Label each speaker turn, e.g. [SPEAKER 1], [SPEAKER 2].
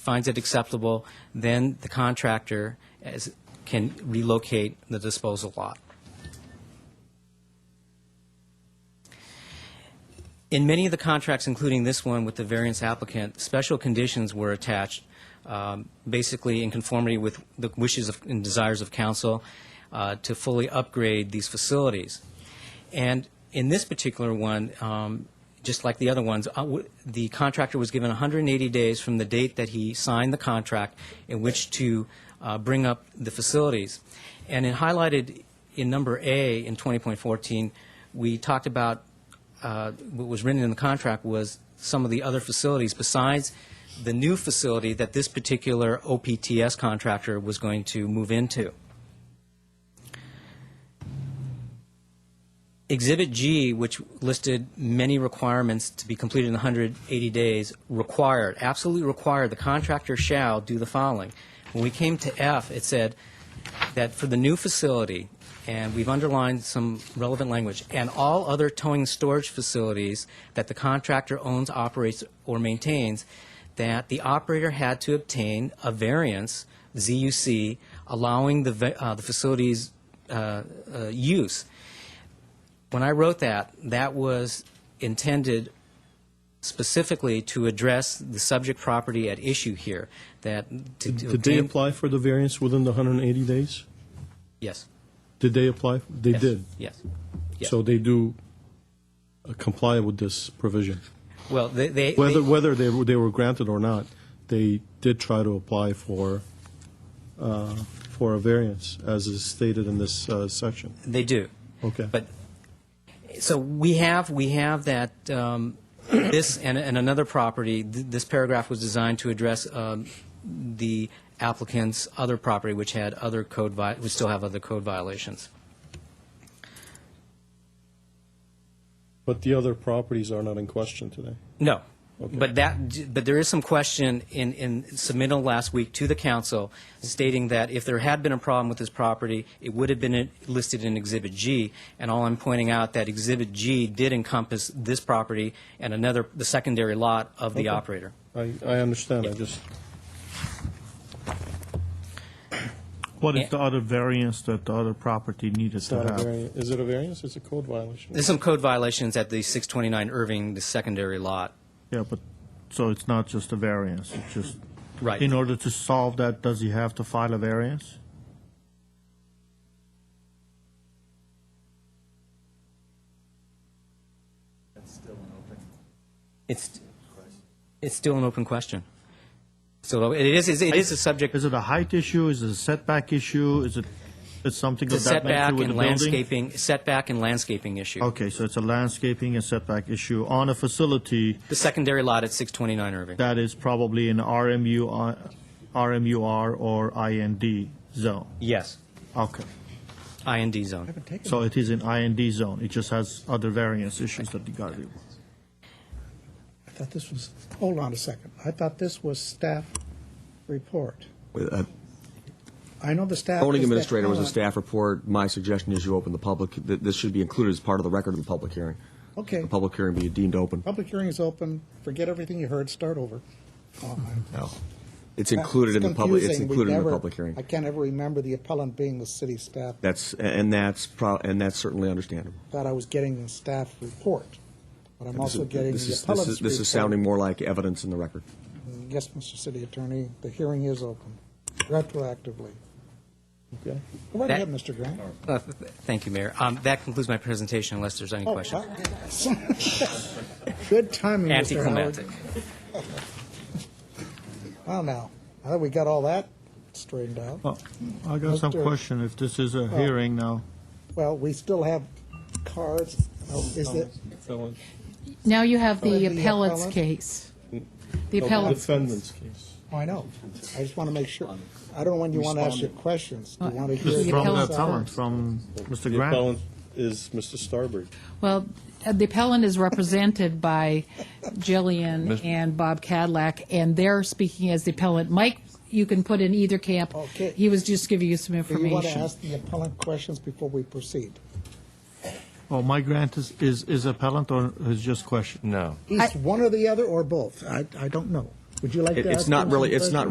[SPEAKER 1] finds it acceptable, then the contractor as- can relocate the disposal lot. In many of the contracts, including this one with the variance applicant, special conditions were attached, um, basically in conformity with the wishes of- and desires of council, uh, to fully upgrade these facilities. And in this particular one, um, just like the other ones, uh, w- the contractor was given 180 days from the date that he signed the contract in which to uh, bring up the facilities. And it highlighted in number A in 20.14, we talked about uh, what was written in the contract was some of the other facilities besides the new facility that this particular OPTS contractor was going to move into. Exhibit G, which listed many requirements to be completed in 180 days, required, absolutely required, the contractor shall do the following. When we came to F, it said that for the new facility, and we've underlined some relevant language, and all other towing and storage facilities that the contractor owns, operates, or maintains, that the operator had to obtain a variance, ZUC, allowing the, va- uh, the facility's uh, uh, use when I wrote that, that was intended specifically to address the subject property at issue here, that to to
[SPEAKER 2] Did they
[SPEAKER 1] obtain-
[SPEAKER 2] apply for the variance within the 180 days?
[SPEAKER 1] Yes.
[SPEAKER 2] Did they apply? They
[SPEAKER 1] yes,
[SPEAKER 2] did.
[SPEAKER 1] Yes.
[SPEAKER 2] So they do uh, comply with this provision.
[SPEAKER 1] Well, they, they,
[SPEAKER 2] Whether,
[SPEAKER 1] they-
[SPEAKER 2] whether they were, they were granted or not, they did try to apply for, uh, for a variance, as is stated in this uh, section.
[SPEAKER 1] they do.
[SPEAKER 2] Okay.
[SPEAKER 1] But, so we have, we have that, um, this and, and another property, th- this paragraph was designed to address um, the applicant's other property, which had other code, vi- would still have other code violations.
[SPEAKER 2] But the other properties are not in question today.
[SPEAKER 1] No. But that, but there is some question in, in submittal last week to the council stating that if there had been a problem with this property, it would have been listed in Exhibit G. And all I'm pointing out that Exhibit G did encompass this property and another, the secondary lot of the operator.
[SPEAKER 2] I, I understand, I just,
[SPEAKER 3] What is the other variance that the other property needed
[SPEAKER 2] it's
[SPEAKER 3] to
[SPEAKER 2] not a
[SPEAKER 3] have?
[SPEAKER 2] variance, is it a variance? It's a code violation.
[SPEAKER 1] There's some code violations at the 629 Irving, the secondary lot.
[SPEAKER 3] Yeah, but, so it's not just a variance, it's just.
[SPEAKER 1] Right.
[SPEAKER 3] In order to solve that, does he have to file a variance?
[SPEAKER 1] It's, it's still an open question. So it is, it is a subject,
[SPEAKER 3] Is it a height issue, is it a setback issue, is it, is something of that
[SPEAKER 1] setback
[SPEAKER 3] nature with the
[SPEAKER 1] and
[SPEAKER 3] building?
[SPEAKER 1] landscaping, setback and landscaping issue.
[SPEAKER 3] Okay, so it's a landscaping and setback issue on a facility
[SPEAKER 1] The secondary lot at 629 Irving.
[SPEAKER 3] that is probably in RMU, RMUR or IND zone.
[SPEAKER 1] Yes.
[SPEAKER 3] Okay,
[SPEAKER 1] IND zone.
[SPEAKER 3] so it is in IND zone, it just has other variance issues that you gotta deal with.
[SPEAKER 4] I thought this was, hold on a second. I thought this was staff report.
[SPEAKER 5] With, uh,
[SPEAKER 4] I know the staff.
[SPEAKER 5] Zoning
[SPEAKER 4] is that- uh,
[SPEAKER 5] administrator was a
[SPEAKER 4] hold on.
[SPEAKER 5] staff report. My suggestion is you open the public, th- this should be included as part of the record of the public hearing.
[SPEAKER 4] Okay.
[SPEAKER 5] The public hearing be deemed open.
[SPEAKER 4] Public hearing is open. Forget everything you heard. Start over. Oh, my-
[SPEAKER 5] No. It's included in the public, it's
[SPEAKER 4] confusing. We
[SPEAKER 5] included in the
[SPEAKER 4] never-
[SPEAKER 5] public
[SPEAKER 4] I
[SPEAKER 5] hearing.
[SPEAKER 4] can't ever remember the appellant being the city staff.
[SPEAKER 5] That's, and that's, pro- and that's certainly understandable.
[SPEAKER 4] Thought I was getting the staff report, but I'm
[SPEAKER 5] This
[SPEAKER 4] also
[SPEAKER 5] is-
[SPEAKER 4] getting
[SPEAKER 5] this
[SPEAKER 4] the
[SPEAKER 5] is- this is-
[SPEAKER 4] appellant's report.
[SPEAKER 5] This is sounding more like evidence in the record.
[SPEAKER 4] Yes, Mr. City Attorney, the hearing is open retroactively.
[SPEAKER 2] Okay.
[SPEAKER 4] Go right
[SPEAKER 1] That-
[SPEAKER 4] ahead, Mr. Grant.
[SPEAKER 1] Uh, th- Thank you, Mayor. Um, That concludes my presentation unless there's any
[SPEAKER 4] Oh,
[SPEAKER 1] questions.
[SPEAKER 4] uh, Good timing, Mr. Howard.
[SPEAKER 1] Anticlimactic.
[SPEAKER 4] Well, now, now that we got all that straightened out,
[SPEAKER 3] Well, I got some
[SPEAKER 4] Mr.
[SPEAKER 3] question, if this is a hearing now.
[SPEAKER 4] well, we still have cards. Oh, Is it,
[SPEAKER 2] Felon-
[SPEAKER 6] Now you have the
[SPEAKER 4] Then Oh, the
[SPEAKER 6] appellate's
[SPEAKER 4] appellant?
[SPEAKER 6] case. The
[SPEAKER 2] no,
[SPEAKER 6] appellant's.
[SPEAKER 2] Defendant's case.
[SPEAKER 4] oh, I know. I just want to make sure. I don't know when you want to ask your questions. Do you want to
[SPEAKER 3] This
[SPEAKER 4] hear
[SPEAKER 3] is
[SPEAKER 6] The
[SPEAKER 3] from the
[SPEAKER 6] appellant's
[SPEAKER 3] appellant,
[SPEAKER 4] the
[SPEAKER 3] from Mr.
[SPEAKER 2] The
[SPEAKER 3] Grant.
[SPEAKER 2] appellant is Mr. Starbird.
[SPEAKER 6] Well, uh, the appellant is represented by Jillian and Bob Cadillac, and they're speaking as the appellant. Mike, you can put in either camp.
[SPEAKER 4] Okay.
[SPEAKER 6] He was just giving you some
[SPEAKER 4] Do you want to
[SPEAKER 6] information.
[SPEAKER 4] ask the appellant questions before we proceed?
[SPEAKER 3] Oh, my Grant is, is is appellant or is just question?
[SPEAKER 7] No.
[SPEAKER 4] East one or the other, or both? I, I don't know.
[SPEAKER 5] Would you like
[SPEAKER 4] It-
[SPEAKER 5] to ask
[SPEAKER 4] It's not
[SPEAKER 5] him
[SPEAKER 4] really,
[SPEAKER 5] some
[SPEAKER 4] it's not
[SPEAKER 5] questions?